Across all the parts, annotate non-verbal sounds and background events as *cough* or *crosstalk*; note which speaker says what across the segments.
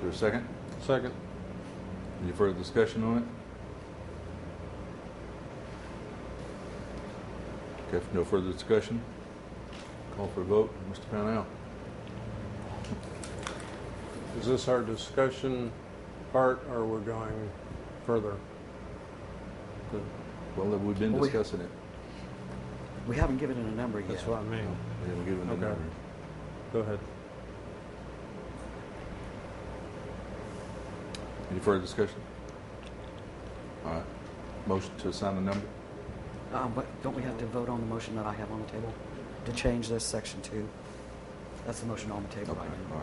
Speaker 1: there a second?
Speaker 2: Second.
Speaker 1: Any further discussion on it? Okay, if no further discussion, call for a vote. Mr. Pownell?
Speaker 2: Is this our discussion part or we're going further?
Speaker 1: Well, we've been
Speaker 3: Well, we-
Speaker 1: discussing it.
Speaker 3: We haven't given it a number yet.
Speaker 2: That's what I mean.
Speaker 1: We haven't given the
Speaker 2: Okay.
Speaker 1: number.
Speaker 2: Go ahead.
Speaker 1: Any further discussion? All right. Motion to assign the number?
Speaker 3: Um, But don't we have to vote on the motion that I have on the table to change this section two? That's the motion on the
Speaker 1: Okay,
Speaker 3: table
Speaker 1: all right.
Speaker 3: right now.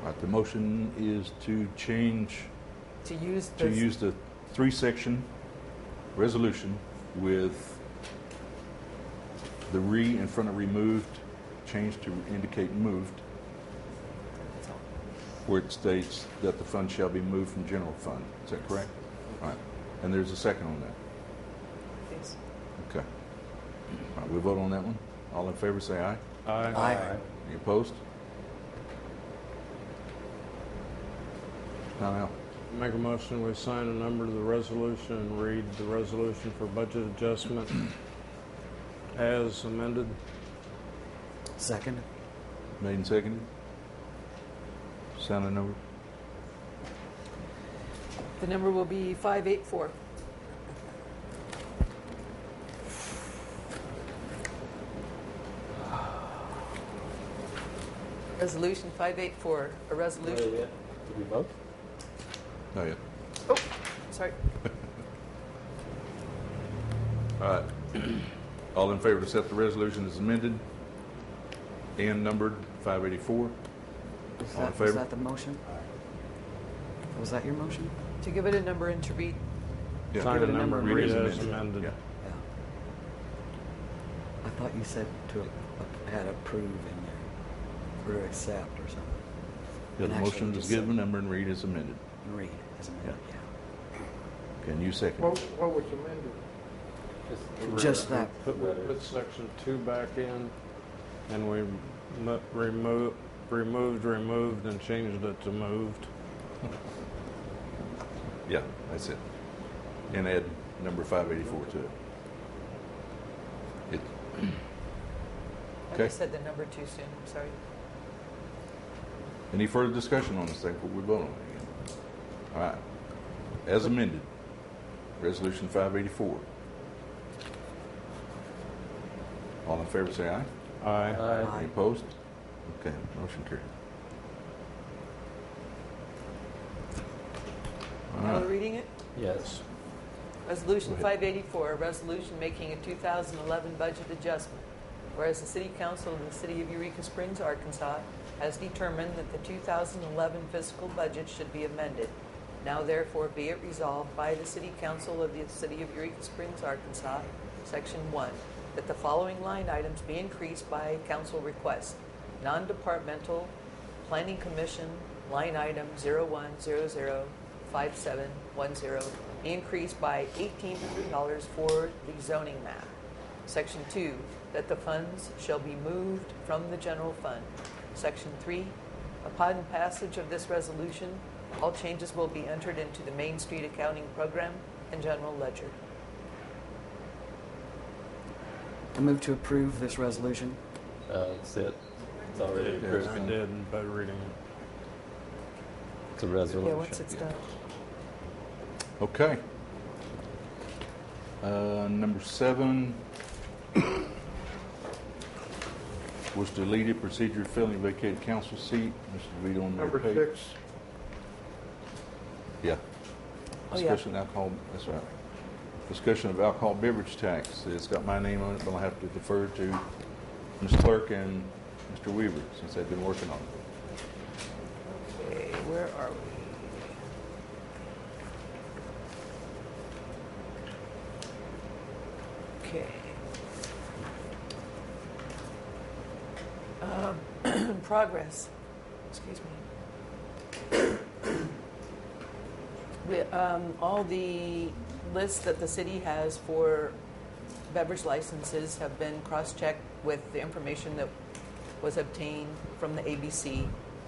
Speaker 1: All right, the motion is to change,
Speaker 4: To use
Speaker 1: to
Speaker 4: this,
Speaker 1: use the three-section resolution with the re in front of removed, changed to indicate moved,
Speaker 3: That's all.
Speaker 1: where it states that the fund shall be moved from general fund. Is that correct? All right. And there's a second on that.
Speaker 4: yes.
Speaker 1: Okay. All right, we vote on that one. All in favor, say aye.
Speaker 2: Aye.
Speaker 3: Aye.
Speaker 1: Any opposed? Pownell,
Speaker 2: Make a motion, we sign a number to the resolution and read the resolution for budget adjustment as amended.
Speaker 3: Second?
Speaker 1: made and seconded. Sign the number.
Speaker 4: The number will be 584. Resolution 584, a resolution,
Speaker 5: Did we vote?
Speaker 1: Oh, yeah.
Speaker 4: sorry.
Speaker 1: All right. All in favor to accept the resolution as amended and numbered 584?
Speaker 3: Is
Speaker 1: All in
Speaker 3: that-
Speaker 1: favor?
Speaker 3: Was that the motion? Was that your motion?
Speaker 4: To give it a number and to read,
Speaker 1: Yeah.
Speaker 2: Sign
Speaker 3: Give
Speaker 2: a
Speaker 3: it a
Speaker 2: number and read it as
Speaker 1: Yeah.
Speaker 2: amended.
Speaker 3: Yeah. I thought you said to, a- had approve in there, or accept or something,
Speaker 1: Yeah, The
Speaker 3: And actually
Speaker 1: motion is
Speaker 3: just
Speaker 1: given, number and read is amended.
Speaker 3: and read as amended, yeah.
Speaker 1: Can you second?
Speaker 6: What, what was amended?
Speaker 3: Just that,
Speaker 2: Put, we put section two back in and we mo- remo removed, removed and changed it to moved.
Speaker 1: Yeah, that's it. And add number 584 to it. It,
Speaker 4: I
Speaker 1: Okay.
Speaker 4: said the number too soon, I'm sorry.
Speaker 1: Any further discussion on this thing before we vote on it again? All right. As amended, Resolution 584. All in favor, say aye.
Speaker 2: Aye.
Speaker 5: Aye.
Speaker 1: Any
Speaker 3: Aye.
Speaker 1: opposed? Okay, motion carried. All
Speaker 4: Now we're
Speaker 1: right,
Speaker 4: reading it?
Speaker 5: Yes.
Speaker 4: Resolution
Speaker 1: Go ahead.
Speaker 4: 584, a resolution making a 2011 budget adjustment. Whereas the City Council of the City of Eureka Springs, Arkansas has determined that the 2011 fiscal budget should be amended. Now therefore be it resolved by the City Council of the City of Eureka Springs, Arkansas, Section 1, that the following line items be increased by council request. Non-departmental, Planning Commission, line item 01005710, increased by $18 for the zoning map. Section 2, that the funds shall be moved from the general fund. Section 3, upon passage of this resolution, all changes will be entered into the Main Street Accounting Program and General Ledger.
Speaker 3: I move to approve this resolution.
Speaker 5: Uh, That's it. It's already approved.
Speaker 2: I did by reading it.
Speaker 5: It's a resolution.
Speaker 4: Yeah, once it's done.
Speaker 1: okay. Uh, Number seven was deleted, procedure failing to vacate council seat. This will be on
Speaker 6: Number
Speaker 1: their page.
Speaker 6: six,
Speaker 1: Yeah.
Speaker 4: Oh, yeah.
Speaker 1: Discussion of alcohol, that's right. Discussion of alcohol beverage tax. It's got my name on it, but I'll have to defer to Ms. Clerk and Mr. Weaver since they've been working on it.
Speaker 4: Okay, where are we? Okay. Um, *clears throat* Progress, excuse me. We, um, All the lists that the city has for beverage licenses have been cross-checked with the information that was obtained from the ABC